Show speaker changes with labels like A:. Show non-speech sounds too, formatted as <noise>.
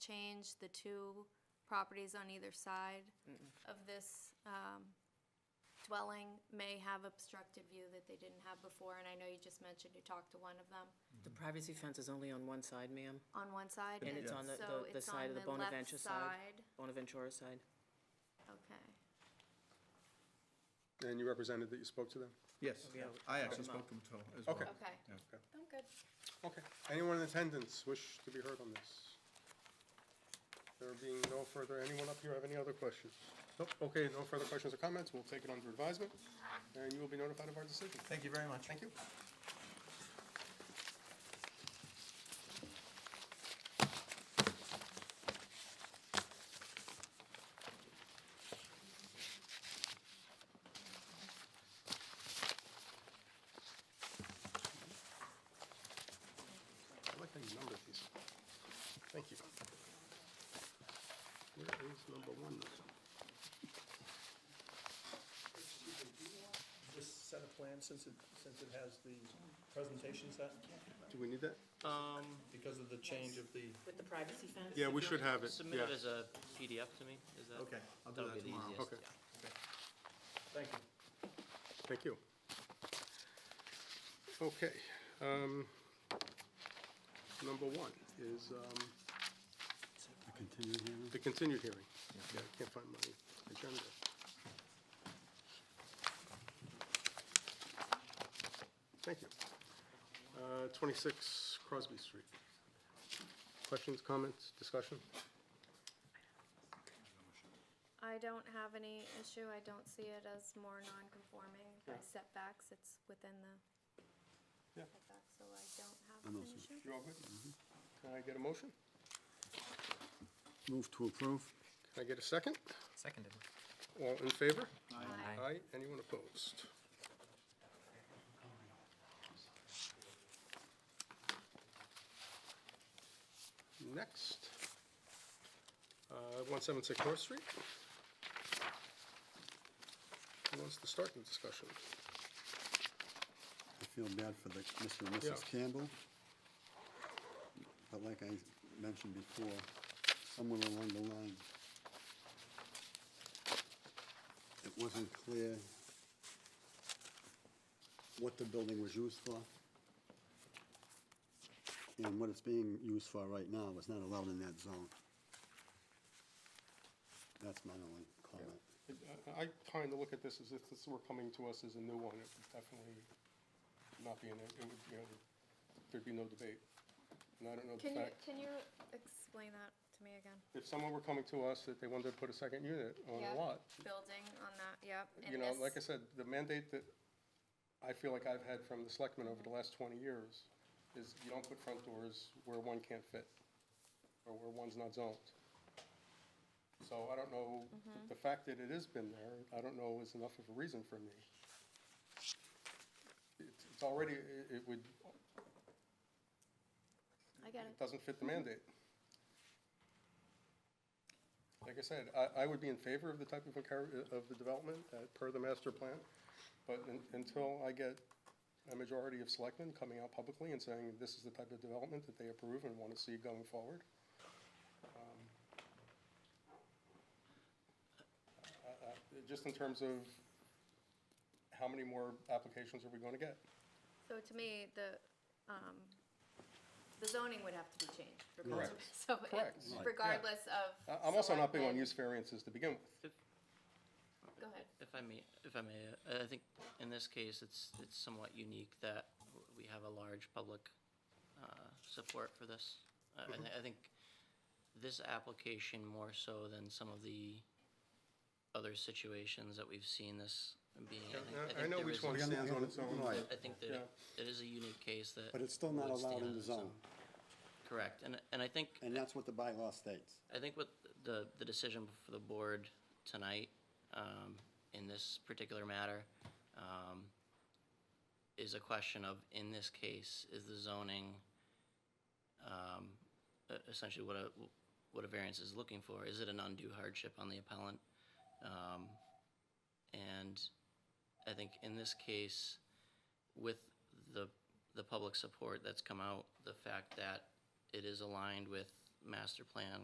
A: change the two properties on either side of this um, dwelling may have obstructed view that they didn't have before, and I know you just mentioned you talked to one of them
B: The privacy fence is only on one side, ma'am,
A: on one side.
B: And it's on the-
A: so
B: the- the
A: it's
B: side
A: on
B: of the
A: left
B: Bonaventure side. Bonaventura side.
A: Okay.
C: And you represented that you spoke to them?
D: Yes,
B: Yeah.
D: I actually spoke to him too, as well.
C: Okay.
A: Okay. I'm good.
C: Okay. Anyone in attendance wish to be heard on this? There being no further, anyone up here have any other questions? Nope, okay, no further questions or comments, we'll take it under advisement, and you will be notified of our decision.
D: Thank you very much.
C: Thank you. I like how you numbered these. Thank you. Where is number one?
E: this set of plans, since it, since it has the presentation set,
C: Do we need that?
E: because of the change of the,
B: With the privacy fence?
C: Yeah, we should have it,
F: Submit
C: yeah.
F: it as a PDF to me, is that?
E: okay, I'll do
F: That'll
E: that
F: be the
E: tomorrow.
F: easiest,
C: Okay.
F: yeah.
E: Thank you.
C: Thank you. Okay. um, Number one is um, the continued hearing. Yeah, I can't find my agenda. Thank you. Uh, 26 Crosby Street. Questions, comments, discussion?
A: I don't have any issue. I don't see it as more non-conforming by setbacks. It's within the
C: Yeah.
A: setbacks, so I don't have an issue.
C: You all good? Mm-hmm. Can I get a motion?
G: Move to approve.
C: Can I get a second?
F: Seconded.
C: All in favor?
A: Aye.
C: Aye, anyone opposed? Next, uh, 176 North Street. Who wants to start the discussion?
G: I feel bad for the Mr. and Mrs.
C: Yeah.
G: Campbell. But like I mentioned before, somewhere along the line, it wasn't clear what the building was used for. And what it's being used for right now is not allowed in that zone. That's my only comment.
C: I- I kind of look at this as if this were coming to us as a new one, it would definitely not be in it, it would, you know, there'd be no debate. And I don't know the
A: Can
C: fact.
A: you, can you explain that to me again?
C: if someone were coming to us that they wanted to put a second unit on
A: Yeah.
C: a lot,
A: Building on that, yep.
C: you know, like I said, the mandate that I feel like I've had from the selectmen over the last twenty years is you don't put front doors where one can't fit, or where one's not zoned. So I don't know, the fact that it has been there, I don't know is enough of a reason for me. It's, it's already, it, it would,
A: I get it.
C: it doesn't fit the mandate. Like I said, I, I would be in favor of the type of, encour- of the development uh, per the master plan, but un- until I get a majority of selectmen coming out publicly and saying this is the type of development that they approve and want to see going forward. um, I- I- Just in terms of how many more applications are we going to get?
A: So to me, the, um, the zoning would have to be changed. regardless.
C: Correct.
A: <laughs> So it-
C: Correct. Right.
A: regardless of.
C: I- I'm also not big on
A: selectmen-
C: use variances to begin with.
A: Go ahead.
F: If I may, if I may, uh, I think in this case, it's, it's somewhat unique that w- we have a large public uh, support for this. I- I
C: Mm-hmm.
F: thi- I think this application more so than some of the other situations that we've seen this being. I think-
C: I- I
F: think
C: know
F: there
C: which
F: is-
C: one stands on its own.
G: Right.
F: I think that it is a unique case that.
G: But it's still not
F: would stand
G: allowed
F: on
G: in the
F: its
G: zone,
F: own. Correct, and, and I think.
G: and that's what the bylaw states.
F: I think what the, the decision for the board tonight, um, in this particular matter, um, is a question of, in this case, is the zoning, um, e- essentially what a, what a variance is looking for? Is it an undue hardship on the appellant? Um, and I think in this case, with the, the public support that's come out, the fact that it is aligned with master plan